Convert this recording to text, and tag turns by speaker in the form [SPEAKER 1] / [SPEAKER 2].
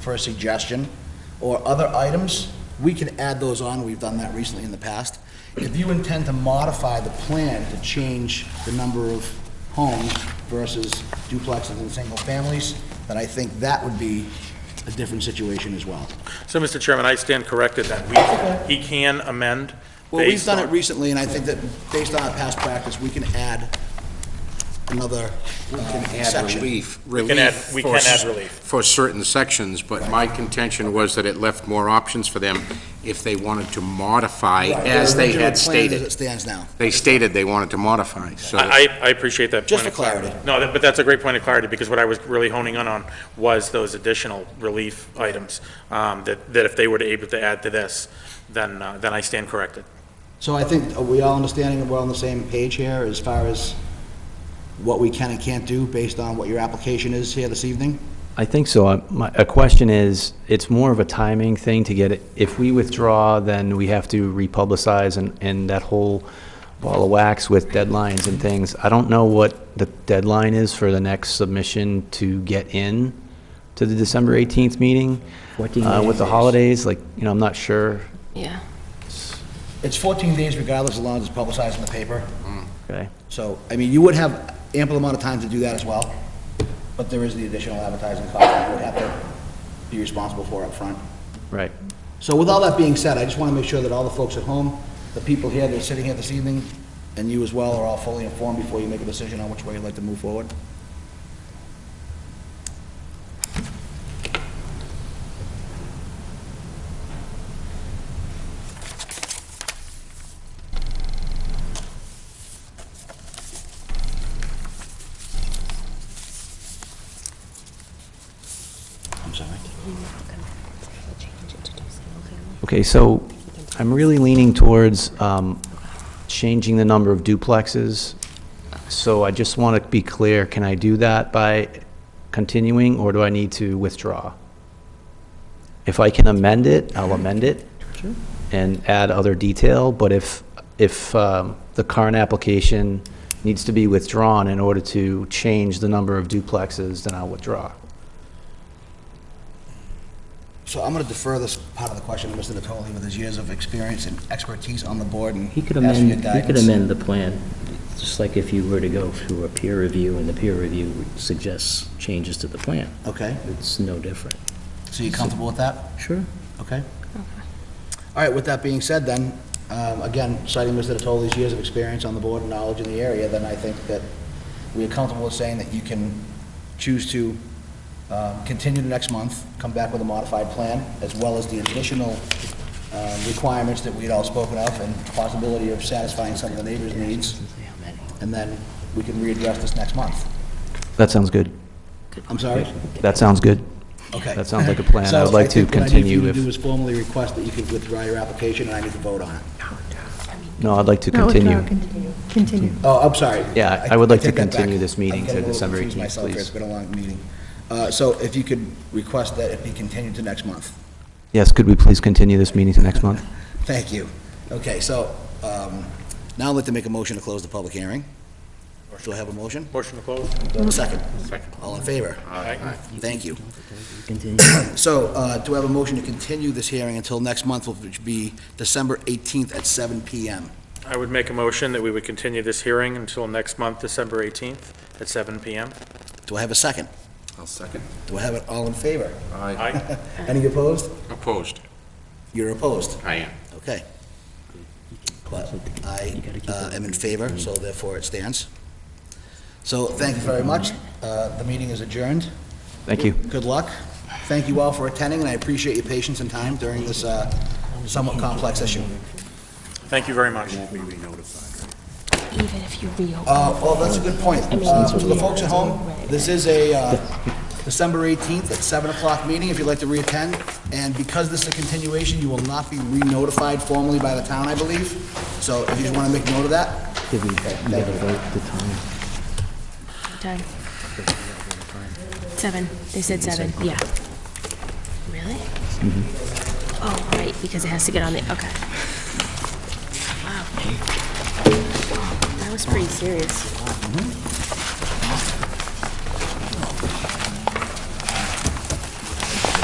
[SPEAKER 1] for a suggestion or other items, we can add those on. We've done that recently in the past. If you intend to modify the plan to change the number of homes versus duplexes and single families, then I think that would be a different situation as well.
[SPEAKER 2] So, Mr. Chairman, I stand corrected that we, he can amend
[SPEAKER 1] Well, we've
[SPEAKER 2] based
[SPEAKER 1] done it
[SPEAKER 2] on...
[SPEAKER 1] recently, and I think that based on our past practice, we can add another uh,
[SPEAKER 3] add
[SPEAKER 1] section.
[SPEAKER 3] relief, relief.
[SPEAKER 2] add- we
[SPEAKER 3] for
[SPEAKER 2] can add
[SPEAKER 3] s-
[SPEAKER 2] relief.
[SPEAKER 3] For certain sections, but my contention was that it left more options for them if they wanted to modify as they had
[SPEAKER 1] As it
[SPEAKER 3] stated.
[SPEAKER 1] stands now.
[SPEAKER 3] They stated they wanted to modify, so.
[SPEAKER 2] I, I- I appreciate that
[SPEAKER 1] Just
[SPEAKER 2] point of
[SPEAKER 1] for
[SPEAKER 2] clarity. No, that- but that's a great point of clarity, because what I was really honing in on was those additional relief items, um, that, that if they were to able to add to this, then, uh, then I stand corrected.
[SPEAKER 1] So I think, are we all understanding, we're on the same page here as far as what we can and can't do based on what your application is here this evening?
[SPEAKER 4] I think so. Uh, My, a question is, it's more of a timing thing to get it, if we withdraw, then we have to republicize and, and that whole ball of wax with deadlines and things. I don't know what the deadline is for the next submission to get in to the December 18th meeting.
[SPEAKER 5] 14
[SPEAKER 4] uh, With the
[SPEAKER 5] days.
[SPEAKER 4] holidays, like, you know, I'm not sure.
[SPEAKER 6] Yeah.
[SPEAKER 1] It's 14 days regardless, as long as it's publicized in the paper.
[SPEAKER 4] Okay.
[SPEAKER 1] So, I mean, you would have ample amount of time to do that as well, but there is the additional advertising cost that you would have to be responsible for up front.
[SPEAKER 4] Right.
[SPEAKER 1] So with all that being said, I just want to make sure that all the folks at home, the people here that are sitting here this evening, and you as well, are all fully informed before you make a decision on which way you'd like to move forward. I'm sorry.
[SPEAKER 4] Okay, so I'm really leaning towards um, changing the number of duplexes. So I just want to be clear, can I do that by continuing, or do I need to withdraw? If I can amend it, I'll amend it and add other detail, but if, if um, the current application needs to be withdrawn in order to change the number of duplexes, then I'll withdraw.
[SPEAKER 1] So I'm going to defer this part of the question to Mr. Natoli with his years of experience and expertise on the board and
[SPEAKER 5] He could
[SPEAKER 1] ask for your
[SPEAKER 5] amend, he could
[SPEAKER 1] guidance.
[SPEAKER 5] amend the plan, just like if you were to go through a peer review and the peer review suggests changes to the plan.
[SPEAKER 1] Okay,
[SPEAKER 5] It's no different.
[SPEAKER 1] so you're comfortable with that?
[SPEAKER 5] Sure.
[SPEAKER 1] Okay. All right, with that being said then, um, again, citing Mr. Natoli's years of experience on the board and knowledge in the area, then I think that we are comfortable with saying that you can choose to um, continue to next month, come back with a modified plan, as well as the additional um, requirements that we had all spoken of and possibility of satisfying some of the neighbors' needs, and then we can readdress this next month.
[SPEAKER 4] That sounds good.
[SPEAKER 1] I'm sorry?
[SPEAKER 4] That sounds good.
[SPEAKER 1] Okay.
[SPEAKER 4] That sounds like a plan. I would
[SPEAKER 1] So
[SPEAKER 4] like to
[SPEAKER 1] think what I need for you
[SPEAKER 4] continue
[SPEAKER 1] to
[SPEAKER 4] if,
[SPEAKER 1] do is formally request that you could withdraw your application, and I need to vote on it.
[SPEAKER 4] no, I'd like to
[SPEAKER 7] No, withdraw,
[SPEAKER 4] continue.
[SPEAKER 7] Continue, continue.
[SPEAKER 1] Oh, I'm sorry.
[SPEAKER 4] Yeah, I would like to
[SPEAKER 1] take that
[SPEAKER 4] continue
[SPEAKER 1] back.
[SPEAKER 4] this meeting
[SPEAKER 1] I'm getting
[SPEAKER 4] to
[SPEAKER 1] a little
[SPEAKER 4] December
[SPEAKER 1] confused
[SPEAKER 4] 18th,
[SPEAKER 1] myself here.
[SPEAKER 4] please.
[SPEAKER 1] It's been a long meeting. Uh, So if you could request that it be continued to next month.
[SPEAKER 4] Yes, could we please continue this meeting to next month?
[SPEAKER 1] Thank you. Okay, so um, now I'd like to make a motion to close the public hearing. Do I have a motion?
[SPEAKER 2] Motion to close?
[SPEAKER 1] Second.
[SPEAKER 2] Second.
[SPEAKER 1] All in favor?
[SPEAKER 2] Aye.
[SPEAKER 1] Thank you.
[SPEAKER 5] Continue.
[SPEAKER 1] So uh, do I have a motion to continue this hearing until next month, which will be December 18th at 7 PM?
[SPEAKER 2] I would make a motion that we would continue this hearing until next month, December 18th, at 7 PM.
[SPEAKER 1] Do I have a second?
[SPEAKER 3] I'll second.
[SPEAKER 1] Do I have it all in favor?
[SPEAKER 3] I
[SPEAKER 2] Aye.
[SPEAKER 1] Any opposed?
[SPEAKER 3] Opposed.
[SPEAKER 1] You're opposed?
[SPEAKER 3] I am.
[SPEAKER 1] Okay. But I uh, am in favor, so therefore it stands. So thank you very much. Uh, The meeting is adjourned.
[SPEAKER 4] Thank you.
[SPEAKER 1] Good luck. Thank you all for attending, and I appreciate your patience and time during this uh, somewhat complex issue.
[SPEAKER 2] Thank you very much.
[SPEAKER 6] Even if you reopen.
[SPEAKER 1] Uh, Well, that's a good point. Uh, For the folks at home, this is a uh, December 18th at 7 o'clock meeting, if you'd like to reattend. And because this is a continuation, you will not be re-notified formally by the town, I believe. So if you just want to make note of that,
[SPEAKER 5] Did we, you gotta vote the time.
[SPEAKER 6] Time. Seven, they said seven, yeah. Really? Oh, right, because it has to get on the, okay. Wow. That was pretty serious.